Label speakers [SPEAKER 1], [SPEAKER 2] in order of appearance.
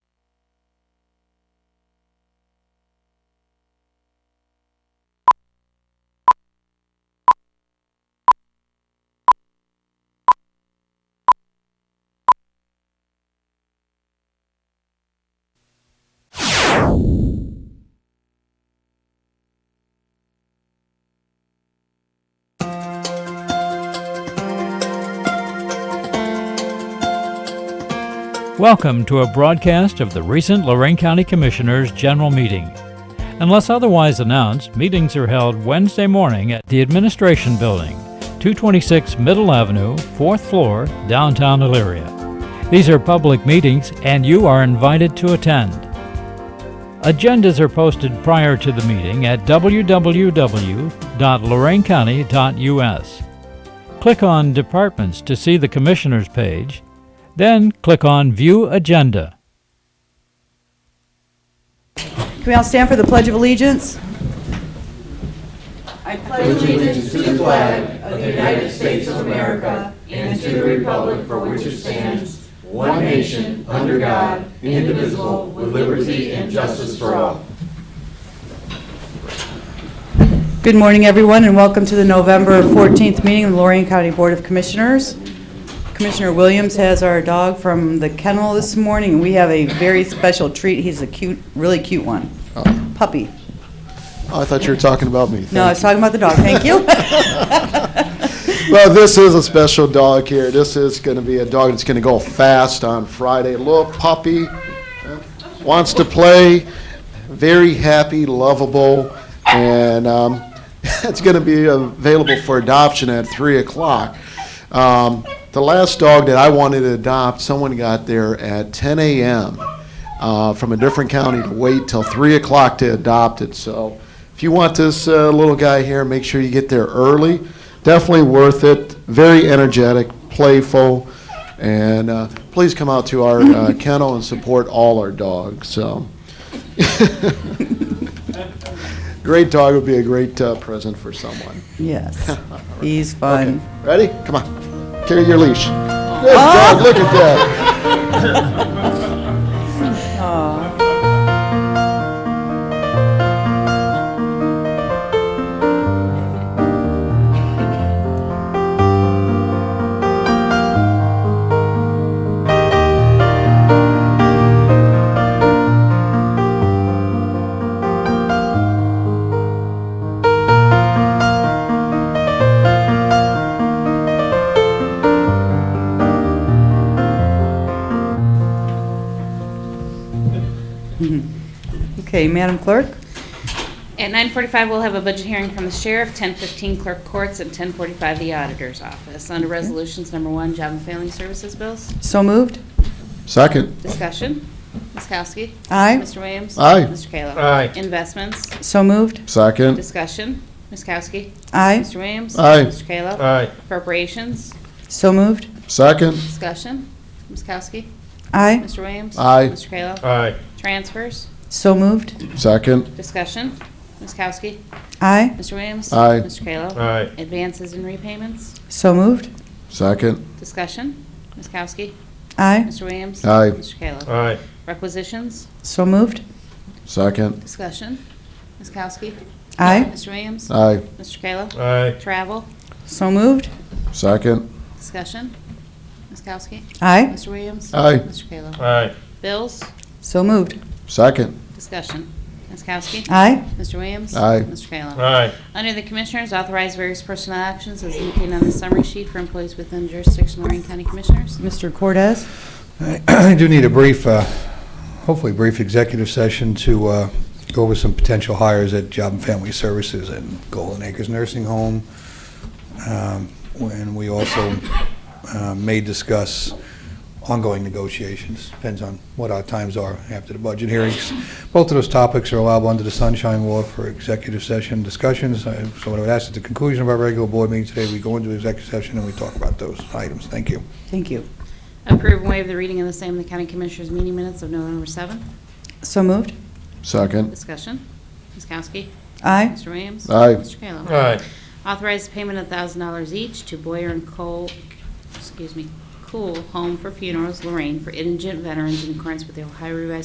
[SPEAKER 1] Welcome to a broadcast of the recent Lorraine County Commissioners' General Meeting. Unless otherwise announced, meetings are held Wednesday morning at the Administration Building, 226 Middle Avenue, 4th floor, downtown Elyria. These are public meetings and you are invited to attend. Agendas are posted prior to the meeting at www.loraincounty.us. Click on Departments to see the Commissioners page, then click on View Agenda.
[SPEAKER 2] Can we all stand for the Pledge of Allegiance? Good morning, everyone, and welcome to the November 14th meeting of the Lorraine County Board of Commissioners. Commissioner Williams has our dog from the kennel this morning, and we have a very special treat. He's a cute, really cute one, puppy.
[SPEAKER 3] Oh, I thought you were talking about me.
[SPEAKER 2] No, I was talking about the dog, thank you.
[SPEAKER 3] Well, this is a special dog here. This is going to be a dog that's going to go fast on Friday. Little puppy, uh, wants to play, very happy, lovable, and um, it's going to be available for adoption at 3 o'clock. Um, the last dog that I wanted to adopt, someone got there at 10 a.m. uh, from a different county to wait till 3 o'clock to adopt it. So if you want this uh, little guy here, make sure you get there early. Definitely worth it. Very energetic, playful, and uh, please come out to our uh, kennel and support all our dogs. So great dog would be a great uh, present for someone.
[SPEAKER 2] Yes, he's fun.
[SPEAKER 3] Ready? Come on. Carry your leash. Good dog. Look at that.
[SPEAKER 2] Okay, Madam Clerk?
[SPEAKER 4] At 9:45, we'll have a budget hearing from the sheriff, 10:15 clerk courts, and 10:45 the auditor's office. Under resolutions, number one, job and family services bills.
[SPEAKER 2] So moved?
[SPEAKER 3] Second.
[SPEAKER 4] Discussion. Ms. Kowski.
[SPEAKER 2] Aye.
[SPEAKER 4] Mr. Williams.
[SPEAKER 3] Aye.
[SPEAKER 4] Mr. Kayla.
[SPEAKER 5] Aye.
[SPEAKER 4] Investments.
[SPEAKER 2] So moved?
[SPEAKER 3] Second.
[SPEAKER 4] Discussion. Ms. Kowski.
[SPEAKER 2] Aye.
[SPEAKER 4] Mr. Williams.
[SPEAKER 3] Aye.
[SPEAKER 4] Mr. Kayla.
[SPEAKER 5] Aye.
[SPEAKER 4] Appropriations.
[SPEAKER 2] So moved?
[SPEAKER 3] Second.
[SPEAKER 4] Discussion. Ms. Kowski.
[SPEAKER 2] Aye.
[SPEAKER 4] Mr. Williams.
[SPEAKER 3] Aye.
[SPEAKER 4] Mr. Kayla.
[SPEAKER 5] Aye.
[SPEAKER 4] Transfers.
[SPEAKER 2] So moved?
[SPEAKER 3] Second.
[SPEAKER 4] Discussion. Ms. Kowski.
[SPEAKER 2] Aye.
[SPEAKER 4] Mr. Williams.
[SPEAKER 3] Aye.
[SPEAKER 4] Mr. Kayla.
[SPEAKER 5] Aye.
[SPEAKER 4] Advances and repayments.
[SPEAKER 2] So moved?
[SPEAKER 3] Second.
[SPEAKER 4] Discussion. Ms. Kowski.
[SPEAKER 2] Aye.
[SPEAKER 4] Mr. Williams?
[SPEAKER 3] Aye.
[SPEAKER 4] Mr. Kayla?
[SPEAKER 5] Aye.
[SPEAKER 4] Requisitions?
[SPEAKER 2] So moved?
[SPEAKER 3] Second.
[SPEAKER 4] Discussion? Ms. Kowski?
[SPEAKER 2] Aye.
[SPEAKER 4] Mr. Williams?
[SPEAKER 3] Aye.
[SPEAKER 4] Mr. Kayla?
[SPEAKER 5] Aye.
[SPEAKER 4] Travel?
[SPEAKER 2] So moved?
[SPEAKER 3] Second.
[SPEAKER 4] Discussion? Ms. Kowski?
[SPEAKER 2] Aye.
[SPEAKER 4] Mr. Williams?
[SPEAKER 3] Aye.
[SPEAKER 4] Mr. Kayla?
[SPEAKER 5] Aye.
[SPEAKER 4] Bills?
[SPEAKER 2] So moved?
[SPEAKER 3] Second.
[SPEAKER 4] Discussion? Ms. Kowski?
[SPEAKER 2] Aye.
[SPEAKER 4] Mr. Williams?
[SPEAKER 3] Aye.
[SPEAKER 4] Mr. Kayla?
[SPEAKER 5] Aye.
[SPEAKER 4] Under the Commissioners, authorize various personnel actions as indicated on the summary sheet for employees within jurisdiction of Lorraine County Commissioners.
[SPEAKER 2] Mr. Cortez?
[SPEAKER 6] I do need a brief, uh, hopefully brief executive session to uh, go over some potential hires at Job and Family Services and Golden Acres Nursing Home. Um, And we also uh, may discuss ongoing negotiations, depends on what our times are after the budget hearings. Both of those topics are allowable under the Sunshine Law for executive session discussions. I- So what I would ask at the conclusion of our regular board meeting today, we go into executive session and we talk about those items. Thank you.
[SPEAKER 2] Thank you.
[SPEAKER 4] Approve and waive the reading of the same in the County Commissioners meeting minutes of November 7th.
[SPEAKER 2] So moved?
[SPEAKER 3] Second.
[SPEAKER 4] Discussion? Ms. Kowski?
[SPEAKER 2] Aye.
[SPEAKER 4] Mr. Williams?
[SPEAKER 3] Aye.
[SPEAKER 4] Mr. Kayla?
[SPEAKER 5] Aye.
[SPEAKER 4] Authorize payment of $1,000 each to Boyer and Cole, excuse me, Cool Home for Funerals, Lorraine, for indigent veterans in accordance with the Ohio Revised